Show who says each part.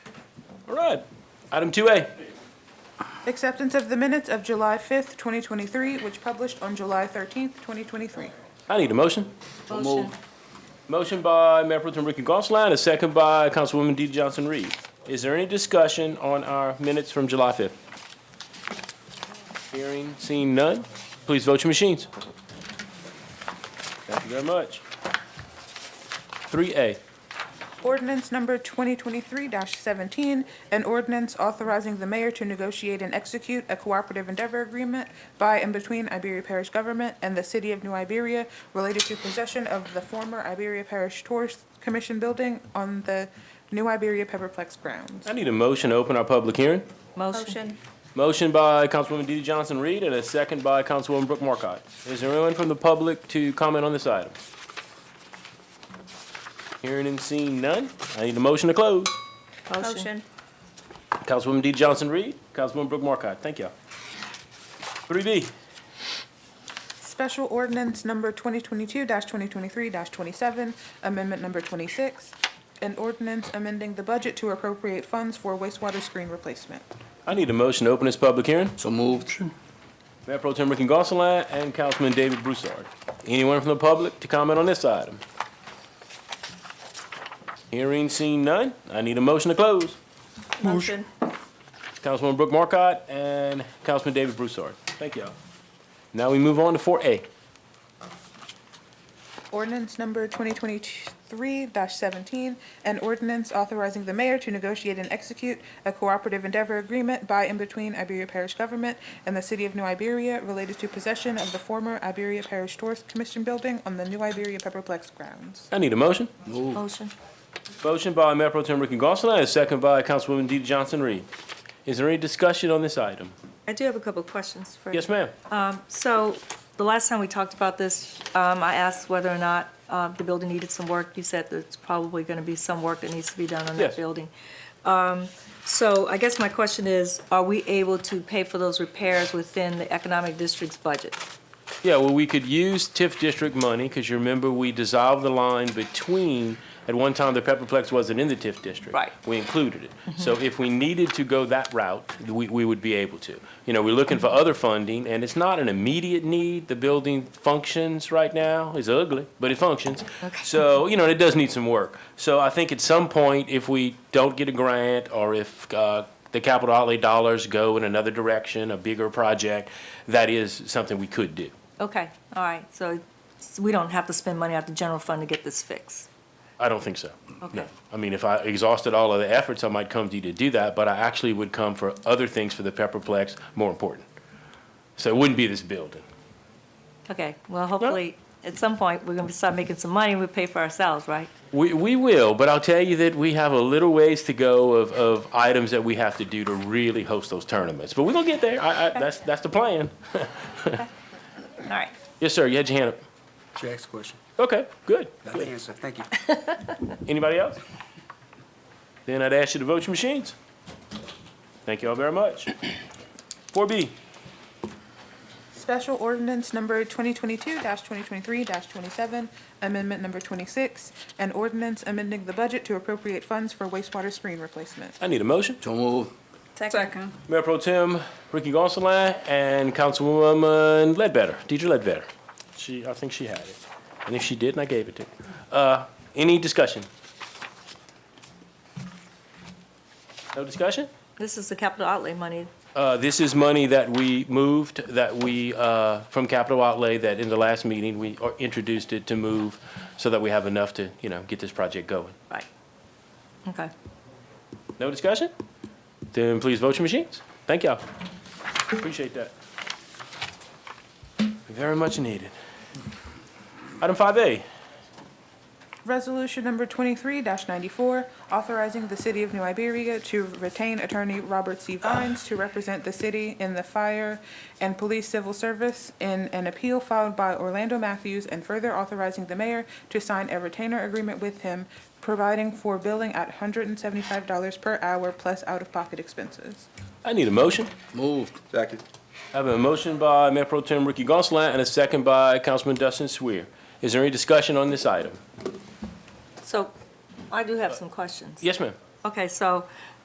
Speaker 1: All right. Item 2A.
Speaker 2: Acceptance of the minutes of July 5th, 2023, which published on July 13th, 2023.
Speaker 1: I need a motion.
Speaker 3: Motion.
Speaker 1: Motion by Mayor Pro Tem Ricky Gonsalas, and a second by Councilwoman Dee Johnson Reed. Is there any discussion on our minutes from July 5th? Hearing, seeing none, please vote your machines. Thank you very much. 3A.
Speaker 2: Ordinance number 2023-17, an ordinance authorizing the mayor to negotiate and execute a cooperative endeavor agreement by and between Iberia Parish Government and the City of New Iberia related to possession of the former Iberia Parish Tourist Commission building on the New Iberia Pepperplex grounds.
Speaker 1: I need a motion to open our public hearing.
Speaker 3: Motion.
Speaker 1: Motion by Councilwoman Dee Dee Johnson Reed and a second by Councilwoman Brooke Markcott. Is there anyone from the public to comment on this item? Hearing and seeing none, I need a motion to close.
Speaker 3: Motion.
Speaker 1: Councilwoman Dee Dee Johnson Reed, Councilwoman Brooke Markcott, thank y'all. Three B,
Speaker 2: Special ordinance number 2022-2023-27, amendment number 26, an ordinance amending the budget to appropriate funds for wastewater screen replacement.
Speaker 1: I need a motion to open this public hearing.
Speaker 4: So moved.
Speaker 1: Mayor Pro Tem Ricky Gonsalas and Councilman David Broussard. Anyone from the public to comment on this item? Hearing seen none, I need a motion to close.
Speaker 3: Motion.
Speaker 1: Councilwoman Brooke Markcott and Councilman David Broussard. Thank y'all. Now we move on to four A.
Speaker 2: Ordinance number 2023-17, an ordinance authorizing the mayor to negotiate and execute a cooperative endeavor agreement by and between Iberia Parish Government and the City of New Iberia related to possession of the former Iberia Parish Tourist Commission building on the New Iberia Pepperplex grounds.
Speaker 1: I need a motion.
Speaker 4: Moved.
Speaker 3: Motion.
Speaker 1: Motion by Mayor Pro Tem Ricky Gonsalas, and second by Councilwoman Dee Dee Johnson-Reed. Is there any discussion on this item?
Speaker 3: I do have a couple of questions for you.
Speaker 1: Yes, ma'am.
Speaker 3: So the last time we talked about this, um, I asked whether or not uh, the building needed some work. You said that it's probably going to be some work that needs to be done on
Speaker 1: Yes.
Speaker 3: that building. Um, So I guess my question is, are we able to pay for those repairs within the economic district's budget?
Speaker 1: Yeah, well, we could use TIF district money, because you remember, we dissolved the line between, at one time, the Pepperplex wasn't in the TIF district.
Speaker 3: Right.
Speaker 1: We included it. So if we needed to go that route, we, we would be able to. You know, we're looking for other funding, and it's not an immediate need. The building functions right now. It's ugly, but it functions. So, you know, and it does need some work. So I think at some point, if we don't get a grant, or if, uh, the capital outlay dollars go in another direction, a bigger project, that is something we could do.
Speaker 3: Okay, all right, so it's- we don't have to spend money out of the general fund to get this fixed?
Speaker 1: I don't think so. No.
Speaker 3: Okay.
Speaker 1: I mean, if I exhausted all of the efforts, I might come to you to do that, but I actually would come for other things for the Pepperplex more important. So it wouldn't be this building.
Speaker 3: Okay, well, hopefully, at some point, we're going to start making some money and we pay for ourselves, right?
Speaker 1: We, we will, but I'll tell you that we have a little ways to go of, of items that we have to do to really host those tournaments. But we're gonna get there. I, I, that's, that's the plan.
Speaker 3: All right.
Speaker 1: Yes, sir. You had your hand up.
Speaker 4: Jack's question.
Speaker 1: Okay, good.
Speaker 4: Got the answer. Thank you.
Speaker 1: Anybody else? Then I'd ask you to vote your machines. Thank you all very much. Four B,
Speaker 2: Special ordinance number 2022-2023-27, amendment number 26, an ordinance amending the budget to appropriate funds for wastewater screen replacement.
Speaker 1: I need a motion.
Speaker 4: So moved.
Speaker 3: Second.
Speaker 1: Mayor Pro Tem Ricky Gonsalas and Councilwoman Ledbetter, Deidre Ledbetter. She, I think she had it. And if she didn't, I gave it to her. Uh, any discussion? No discussion?
Speaker 3: This is the capital outlay money.
Speaker 1: Uh, this is money that we moved, that we, uh, from capital outlay, that in the last meeting, we uh, introduced it to move so that we have enough to, you know, get this project going.
Speaker 3: Right. Okay.
Speaker 1: No discussion? Then please vote your machines. Thank y'all. Appreciate that. Very much needed. Item five A,
Speaker 2: Resolution number 23-94, authorizing the City of New Iberia to retain attorney Robert C. Vines to represent the city in the fire and police civil service in an appeal filed by Orlando Matthews, and further authorizing the mayor to sign a retainer agreement with him, providing for billing at $175 per hour plus out-of-pocket expenses.
Speaker 1: I need a motion.
Speaker 4: Moved. Second.
Speaker 1: I have a motion by Mayor Pro Tem Ricky Gonsalas and a second by Councilman Dustin Swier. Is there any discussion on this item?
Speaker 3: So I do have some questions.
Speaker 1: Yes, ma'am.
Speaker 3: Okay, so